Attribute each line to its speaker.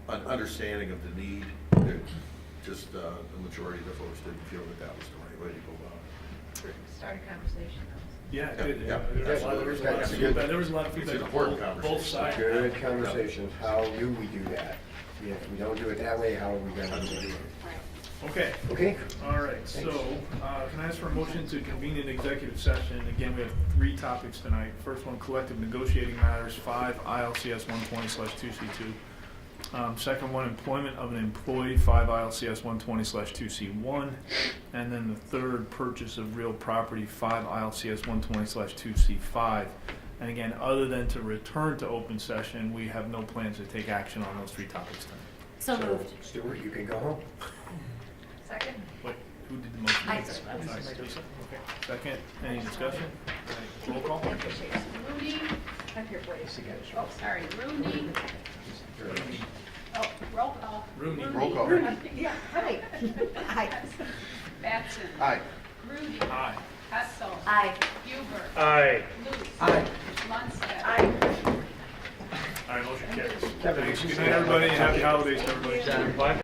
Speaker 1: understanding of the need, that just uh, the majority of the folks didn't feel that that was the right way to go about it.
Speaker 2: Start a conversation.
Speaker 3: Yeah, it
Speaker 1: Yeah, yeah,
Speaker 3: did. There was a lot- there was a lot of
Speaker 1: absolutely.
Speaker 3: feedback, there was a lot of
Speaker 1: It's an
Speaker 3: feedback on
Speaker 1: important
Speaker 3: both- both
Speaker 1: conversation.
Speaker 3: sides.
Speaker 4: Good conversations, how do we do that? If we don't do it that way, how are we gonna do it?
Speaker 3: Okay,
Speaker 4: Okay?
Speaker 3: all right, so, uh, can I ask for a motion to convene an executive session? Again, we have three topics tonight. First one, collective negotiating matters, five ILCS one twenty slash two C two. Um, second one, employment of an employee, five ILCS one twenty slash two C one. And then the third, purchase of real property, five ILCS one twenty slash two C five. And again, other than to return to open session, we have no plans to take action on those three topics tonight.
Speaker 5: So moved.
Speaker 4: Stuart, you can go home.
Speaker 2: Second?
Speaker 3: Wait, who did the motion?
Speaker 5: I did. I was
Speaker 3: Sorry,
Speaker 5: just-
Speaker 3: Lisa. Okay. Second, any discussion? Roll call?
Speaker 2: Rooney, up here, please. Oh, sorry, Rooney, oh, roll call.
Speaker 3: Rooney.
Speaker 1: Roll call.
Speaker 2: Rooney. Yeah, hi.
Speaker 5: Aye.
Speaker 2: Batson.
Speaker 1: Aye.
Speaker 2: Rooney.
Speaker 3: Aye.
Speaker 2: Hessel.
Speaker 5: Aye.
Speaker 2: Huber.
Speaker 3: Aye.
Speaker 2: Luce.
Speaker 4: Aye.
Speaker 2: Lundstedt.
Speaker 3: All right, motion carries.
Speaker 4: Kevin,
Speaker 3: Thanks,
Speaker 4: you
Speaker 3: good
Speaker 4: say
Speaker 3: night,
Speaker 4: that.
Speaker 3: everybody, and happy holidays to everybody.